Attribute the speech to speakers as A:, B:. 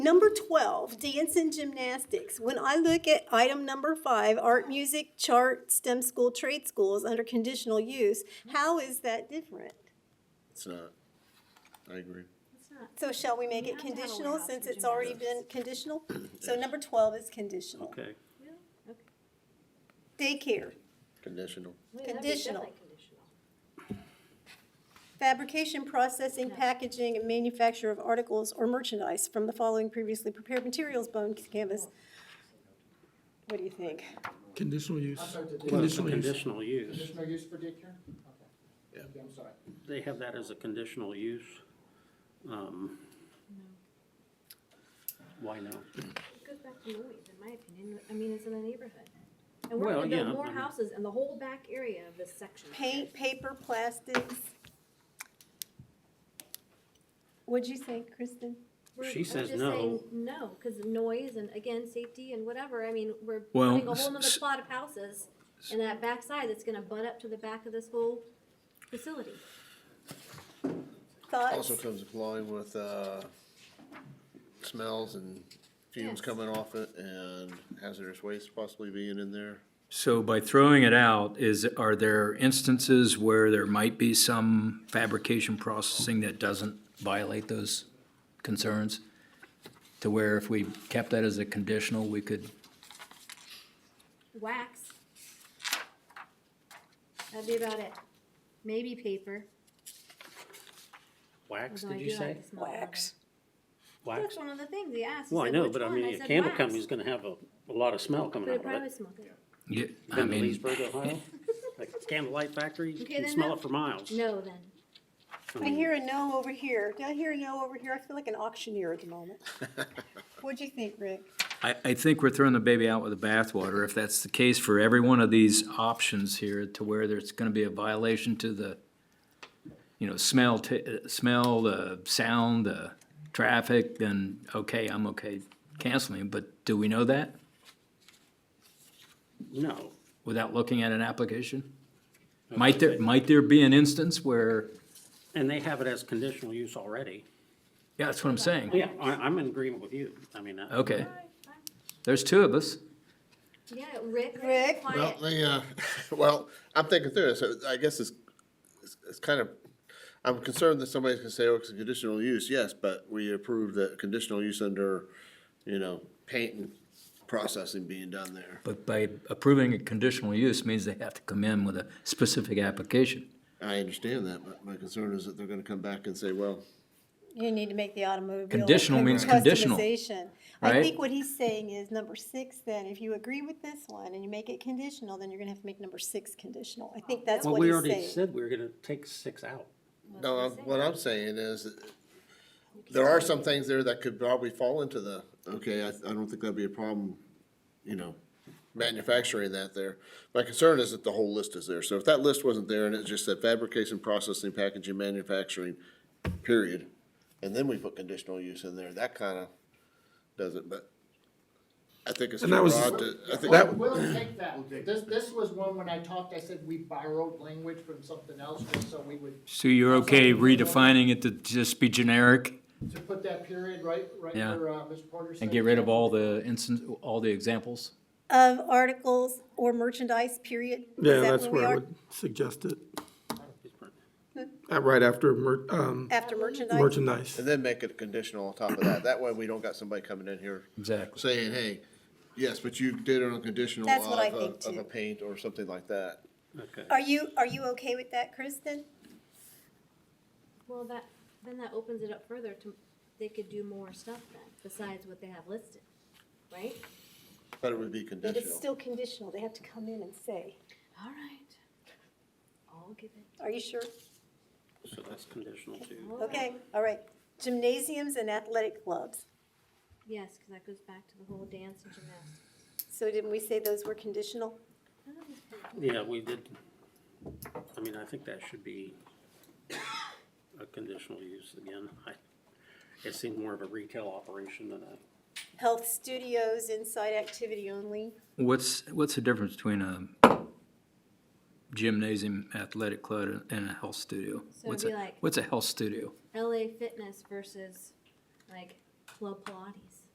A: Number 12, dance and gymnastics. When I look at item number five, art, music, chart, STEM school, trade schools under conditional use, how is that different?
B: It's not. I agree.
A: So shall we make it
C: have to have a
A: conditional
C: warehouse
A: since
C: for
A: it's already been conditional? So number 12 is conditional.
D: Okay,
A: Daycare,
B: Conditional.
A: Conditional. fabrication, processing, packaging, and manufacture of articles or merchandise from the following previously prepared materials, bone, canvas. What do you think?
E: Conditional use.
F: I'm sorry, did-
D: well, it's a
E: Conditional use.
D: conditional use.
F: Conditional use for daycare? Okay.
B: Yeah.
F: Okay, I'm sorry.
D: They have that as a conditional use. Um, Why no?
C: It goes back to noise, in my opinion. I mean, it's in the neighborhood. And we're
D: Well,
C: gonna build
D: yeah,
C: more
D: I mean-
C: houses in the whole back area of this section.
A: Paint, paper, plastics. What'd you say, Kristen?
C: We're-
D: She
C: I'm
D: says
C: just
D: no.
C: saying No, because noise and again, safety and whatever. I mean, we're
E: Well,
C: putting a whole nother
E: s-
C: plot of houses in that backside that's gonna butt up to the back of this whole facility.
A: Thoughts?
B: Also comes along with, uh, smells and fumes
C: Yes.
B: coming off it and hazardous waste possibly being in there.
G: So by throwing it out, is, are there instances where there might be some fabrication processing that doesn't violate those concerns? To where if we kept that as a conditional, we could,
C: Wax. That'd be about it. Maybe paper.
D: Wax,
C: although
D: did
C: I
D: you
C: do like
D: say?
C: the smell of it.
D: Wax?
C: That's one of the things he asked. He
D: Well, I
C: said,
D: know,
C: "Which
D: but I
C: one?"
D: mean, a
C: said,
D: candle
C: "Wax."
D: company's gonna have a, a lot of smell coming
C: But
D: out
C: it
D: of
C: probably
D: it.
C: smells good.
G: yeah, I
D: Been to
G: mean,
D: Leesburg, Ohio? Like candlelight factory, you
C: Okay,
D: can
C: then
D: smell
C: no.
D: it for miles.
C: No, then.
A: I hear a no over here. Did I hear a no over here? I feel like an auctioneer at the moment. What'd you think, Rick?
G: I, I think we're throwing the baby out with the bathwater. If that's the case for every one of these options here, to where there's gonna be a violation to the, you know, smell, ta- uh, smell, the sound, the traffic, then, okay, I'm okay canceling, but do we know that?
D: No,
G: without looking at an application? Might there, might there be an instance where,
D: and they have it as conditional use already.
G: yeah, that's what I'm saying.
D: Yeah, I, I'm in agreement with you. I mean, I-
G: Okay, there's two of us.
C: Yeah, Rick.
A: Rick?
B: Well,
C: Quiet.
B: they, uh, well, I'm thinking through this. So I guess it's, it's, it's kind of, I'm concerned that somebody's gonna say, oh, it's a conditional use, yes, but we approved the conditional use under, you know, paint and processing being done there.
G: But by approving a conditional use means they have to come in with a specific application.
B: I understand that, but my concern is that they're gonna come back and say, well,
A: You need to make the automobile.
G: Conditional means conditional,
A: customization. I
G: right?
A: think what he's saying is number six then, if you agree with this one and you make it conditional, then you're gonna have to make number six conditional. I think that's
D: well,
A: what
D: we
A: he's
D: already
A: saying.
D: said we were gonna take six out.
B: No, I'm- what I'm saying is, that there are some things there that could probably fall into the, okay, I, I don't think that'd be a problem, you know, manufacturing that there. My concern is that the whole list is there, so if that list wasn't there and it just said fabrication, processing, packaging, manufacturing, period, and then we put conditional use in there, that kinda does it, but I think it's too
E: And that was-
B: broad to, I think.
E: That-
F: We'll we'll take that. This, this was one when I talked, I said we borrowed language from something else, just so we would,
G: So you're okay redefining it to just be generic
F: to put that period right, right
G: Yeah.
F: where, uh, Mr. Porter said.
G: and get rid of all the instance, all the examples?
A: Of Um, articles or merchandise, period? Is
E: Yeah,
A: that
E: that's
A: we
E: where I
A: are?
E: would suggest it. Uh, Right after mer- um,
A: After merchandise?
E: merchandise.
B: And then make it conditional on top of that, that way we don't got somebody coming in here
G: Exactly.
B: saying, hey, yes, but you did it on a conditional
A: That's
B: of
A: what I
B: a,
A: think,
B: of a
A: too.
B: paint or something like that.
D: Okay.
A: Are you, are you okay with that, Kristen?
C: Well, that, then that opens it up further to, they could do more stuff then, besides what they have listed, right?
B: But it would be
A: But it's
B: conditional.
A: still conditional, they have to come in and say.
C: All right. I'll give it.
A: Are you sure?
D: So that's conditional too.
C: all right.
A: Okay, all right. Gymnasiums and athletic clubs.
C: Yes, because that goes back to the whole dance and gymnastics.
A: So didn't we say those were conditional?
C: I don't know.
D: Yeah, we did. I mean, I think that should be a conditional use again. I, it seemed more of a retail operation than a,
A: Health studios, inside activity only.
G: What's, what's the difference between a gymnasium athletic club and a health studio?
C: it'd
G: What's
C: be
G: a-
C: like-
G: What's a health studio?
C: LA Fitness versus like Club Pilates.